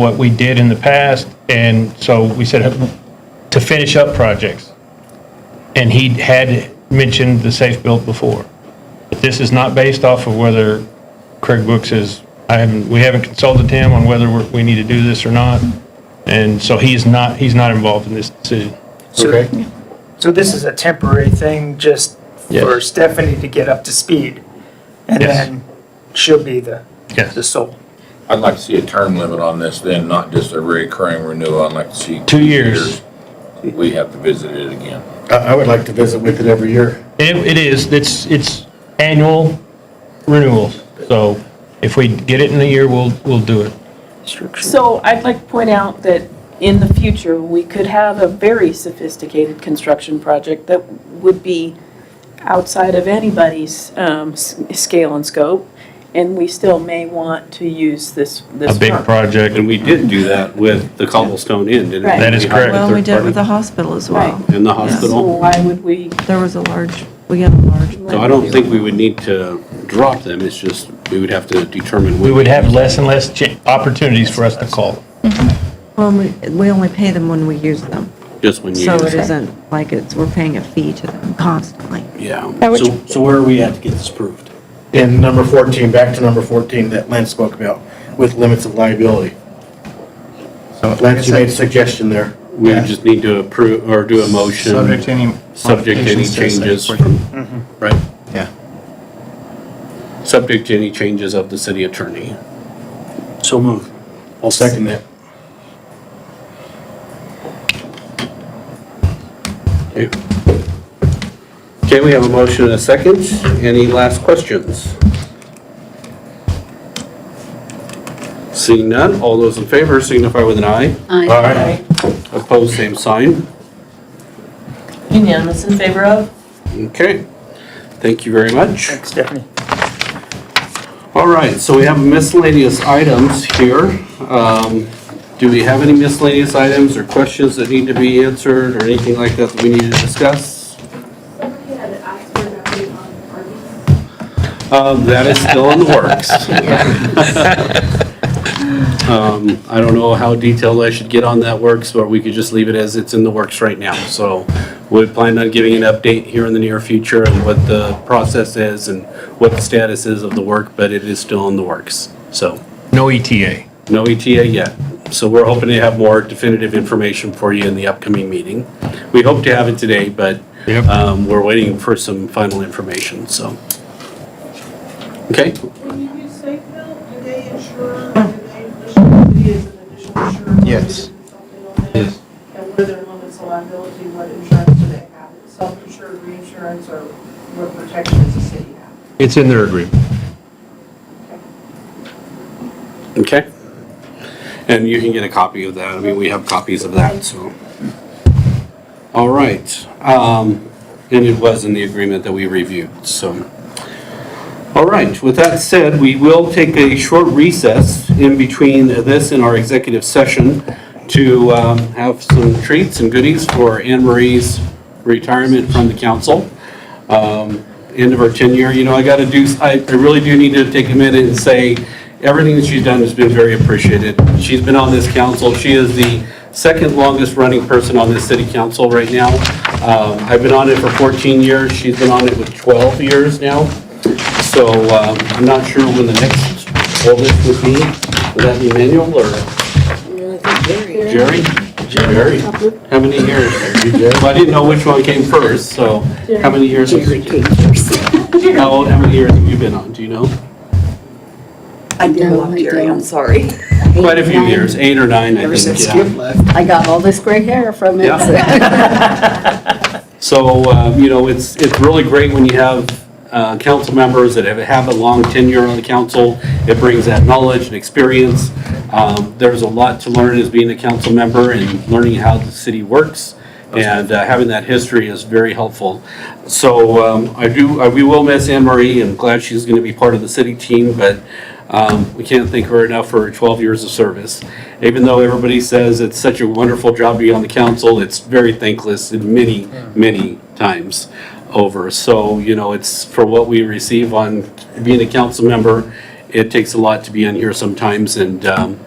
what we did in the past, and so we said to finish up projects. And he had mentioned the safe build before. But this is not based off of whether Craig Brooks is, I haven't, we haven't consulted him on whether we're- we need to do this or not. And so he's not, he's not involved in this decision. Okay. So this is a temporary thing, just for Yes. Stephanie to get up to speed, and Yes. then she'll be the, Yes. the sole. I'd like to see a term limit on this then, not just a recurring renewal. I'd like to see. Two years. years. We have to visit it again. I, I would like to visit with it every year. It, it is, it's, it's annual renewals. So if we get it in a year, we'll, we'll do it. So I'd like to point out that in the future, we could have a very sophisticated construction project that would be outside of anybody's um, s- scale and scope, and we still may want to use this, this A big firm. project. And we did do that with the cobblestone inn, didn't we? Right. That is We hired a correct. Well, we did it with the third hospital as well. Right. party In the So hospital. why would we? There was a large, we had a large. So I don't think we would need to drop them, it's just, we would have to determine. We would have less and less cha- opportunities for us to call. Well, we, we only pay them when we use them. Just when you. So it isn't like it's, we're paying a fee to them constantly. Yeah. Now, which- So, so where are we at to get this approved? And number 14, back to number 14 that Lynn spoke about, with limits of liability. So Lance, you made a suggestion there. We would just need to approve, or do a motion. Subject to any. Subject to any modifications to the site changes Mm-hmm. plan. from, right? Yeah. Subject to any changes of the city attorney. So move. I'll second that. Okay, we have a motion and a second. Any last questions? Seeing none, all those in favor signify with an eye. All right. Opposed, same sign. Unanimous in favor of? Okay, thank you very much. Thanks, Stephanie. All right, so we have miscellaneous items here. Um, Do we have any miscellaneous items or questions that need to be answered or anything like that that we need to discuss? Somebody had asked for an update on Arby's. Um, That is still in the works. Um, I don't know how detailed I should get on that works, but we could just leave it as it's in the works right now. So we plan on giving an update here in the near future and what the process is and what the status is of the work, but it is still in the works. So No ETA. no E ETA yet. So we're hoping to have more definitive information for you in the upcoming meeting. We hope to have it today, but Yep. um, we're waiting for some final information, so. Okay, When you use Safebuilt, do they insure, do they insure, it is an additional insurance? Yes. Yes. And what are their limits of liability, what insurance do they have? Self-insured, reinsurance, or what protection does the city have? It's in their agreement. okay. And you can get a copy of that. I mean, we have copies of that, so. All right. um, And it was in the agreement that we reviewed, so. All right, with that said, we will take a short recess in between this and our executive session to um, have some treats and goodies for Anne Marie's retirement from the council. Um, End of her tenure, you know, I got to do, I I really do need to take a minute and say, everything that she's done has been very appreciated. She's been on this council, she is the second longest-running person on this city council right now. Um, I've been on it for 14 years, she's been on it with 12 years now. So um, I'm not sure when the next oldest would be. Would that be Manuel or Jerry? Jerry. How many years? Well, I didn't know which one came first, so how many years? Jerry came first. How old, how many years have you been on, do you know? I did love Jerry, I'm sorry. Quite a few years, eight or nine, I Ever think, since yeah. Skip left. I got all this gray hair from it. So, um, you know, it's, it's really great when you have uh, council members that have, have a long tenure on the council. It brings that knowledge and experience. Um, There's a lot to learn as being a council member and learning how the city works. And uh, having that history is very helpful. So um, I do, I- we will miss Anne Marie and glad she's going to be part of the city team, but um, we can't thank her enough for her 12 years of service. Even though everybody says it's such a wonderful job to be on the council, it's very thankless in many, many times over. So, you know, it's for what we receive on being a council member, it takes a lot to be in here sometimes. And um,